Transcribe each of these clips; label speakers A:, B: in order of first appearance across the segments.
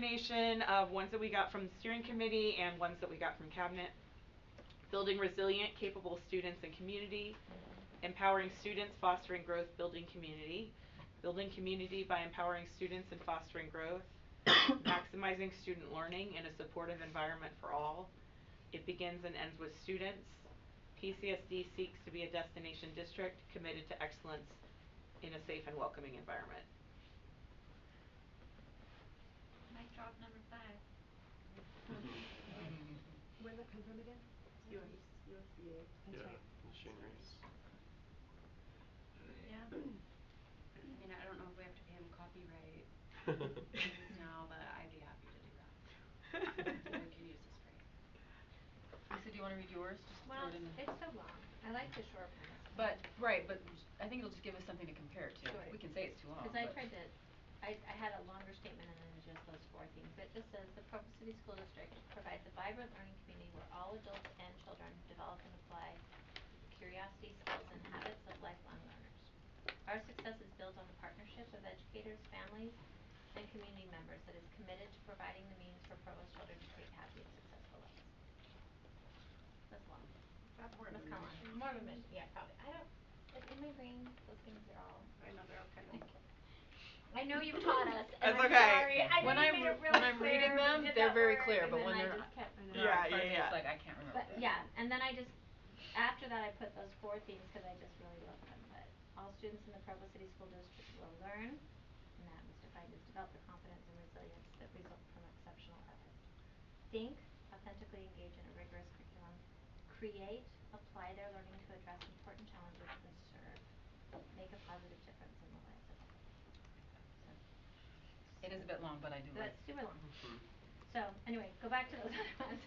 A: combination of ones that we got from the steering committee and ones that we got from cabinet. Building resilient, capable students and community, empowering students, fostering growth, building community. Building community by empowering students and fostering growth, maximizing student learning in a supportive environment for all. It begins and ends with students. PCSD seeks to be a destination district committed to excellence in a safe and welcoming environment.
B: Mic drop number five.
C: Where'd that come from again?
B: Yours.
C: USDA. That's right.
B: Yeah. I mean, I don't know if we have to pay him copyright now, but I'd be happy to do that. We could use this phrase.
D: Lisa, do you wanna read yours, just throw
C: Well,
D: it in the?
C: it's so long. I like the short ones.
D: But, right, but s- I think it'll just give us something to compare it to,
C: Sure.
D: we can say it's too long,
E: Cause I
D: but-
E: tried to, I I had a longer statement and then just those four things, but it just says the Provo City School District provides a vibrant learning community where all adults and children develop and apply curiosity, skills and habits of lifelong learners. Our success is built on the partnership of educators, families and community members that is committed to providing the means for Provo's children to create happy and successful lives. That's long.
C: That's
E: That's kinda long. More of a mission, yeah, probably. I don't, like in my brain, those things are all
C: I know, they're all kind
E: Thank you. I know you've taught us,
A: That's
E: and I'm
A: okay.
E: sorry. I
D: When
E: know you
D: I'm
E: made
D: re-
E: it really
D: when I'm reading
E: clear, we
D: them,
E: did
D: they're
E: that
D: very
E: work,
D: clear,
E: and
D: but
E: then
D: when
E: I
D: they're
E: just kept-
C: I know.
A: Yeah,
D: There are
A: yeah,
D: parts that's
A: yeah.
D: like, I can't remember.
E: But yeah, and then I just, after that, I put those four things, cause I just really love them, but all students in the Provo City School District will learn, and that was defined as develop the confidence and resilience that result from exceptional effort. Think, authentically engage in a rigorous curriculum, create, apply their learning to address important challenges, and serve, make a positive difference in the lives of others. So-
D: It is a bit long, but I do like.
E: that's super long.
F: Mm-hmm.
E: So, anyway, go back to those other ones.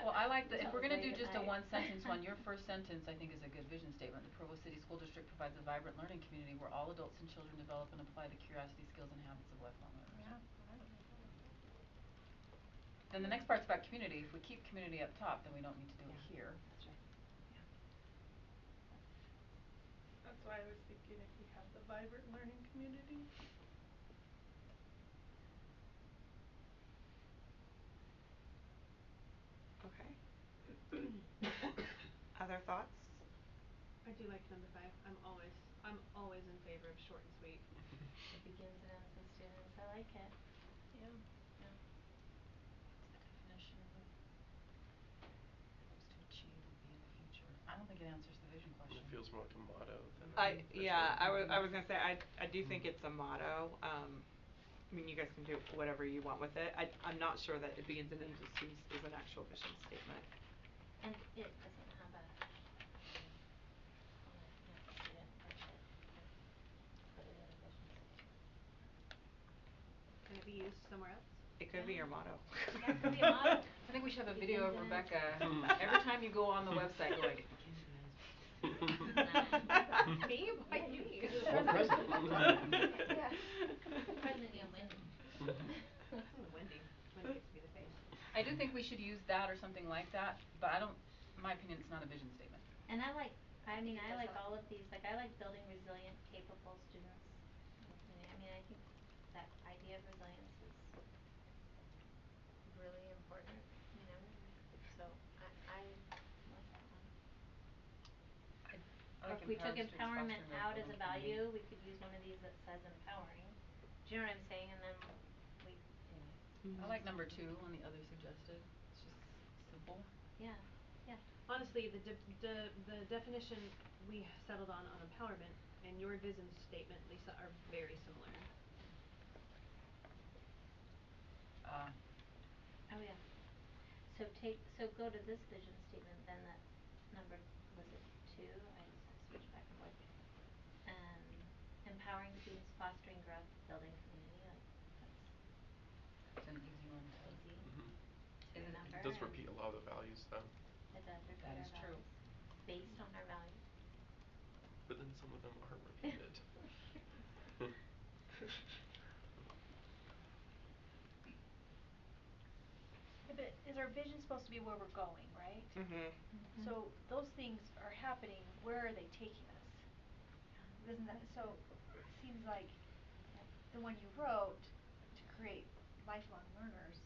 D: Well, I like the, if we're
E: Tell us
D: gonna do
E: later
D: just a
E: tonight.
D: one sentence one, your first sentence I think is a good vision statement. The Provo City School District provides a vibrant learning community where all adults and children develop and apply the curiosity, skills and habits of lifelong learners. Then the next part's about community. If we keep community up top, then we don't need to do it
E: Yeah.
D: here.
E: That's right.
G: That's why I was thinking if we have the vibrant learning community.
A: Okay. Other thoughts?
C: I do like number five. I'm always, I'm always in favor of short and sweet.
E: It begins and ends with students, I like it.
D: Yeah, yeah. It's the definition of what hopes to achieve and be in the future. I don't think it answers the vision question.
F: It feels more like a motto than a
A: I, yeah, I was,
F: official-
A: I was gonna say, I, I do think it's a motto, um, I mean, you guys can do whatever you want with it, I, I'm not sure that it begins and ends with students is an actual vision statement.
E: And it doesn't have a. um, hold on, no, it didn't, that's it. Go to the other vision section.
C: Can it be used somewhere else?
A: It could be your motto.
E: Yeah, it could be a motto.
D: I think we should have a
E: Begins
D: video of
E: and ends.
D: Rebecca, every time you go on the website, go like,
C: Me, why me?
F: Well, present.
E: Yeah. President and Wendy.
C: Oh, Wendy. Wendy gets to be the face.
D: I do think we should use that or something like that, but I don't, in my opinion, it's not a vision statement.
E: And I like, I mean, I
B: That's
E: like
B: all.
E: all of these, like I like building resilient, capable students. I mean, I think that idea of resilience is really important, you know, so I I like that one.
D: I- I
E: Or
D: like
E: if we took
D: empowering students, fostering
E: empowerment
D: growth,
E: out as a
D: building
E: value,
D: community.
E: we could use one of these that says empowering, do you know what I'm saying, and then we, anyway,
D: I like number two on the other suggested, it's just simple.
E: yeah, yeah.
C: Honestly, the de- de- the definition we settled on on empowerment and your vision statement, Lisa, are very similar.
D: Uh,
E: Oh, yeah. So take, so go to this vision statement, then that number, was it two? I just switched back and forth. Um, empowering students, fostering growth, building community, like,
D: it's
E: that's
D: an easy one to.
E: easy
F: Mhm.
E: to
D: It- it
E: remember.
F: It does
E: and
F: repeat a lot of the values though,
E: It does repeat
D: That
E: our
D: is true.
E: values, based on our values.
F: but then some of them are repeated.
H: Yeah, but is our vision supposed to be where we're going, right?
A: Mhm.
E: Mm-hmm.
H: So those things are happening, where are they taking us? Isn't that, so it seems like the one you wrote to create lifelong learners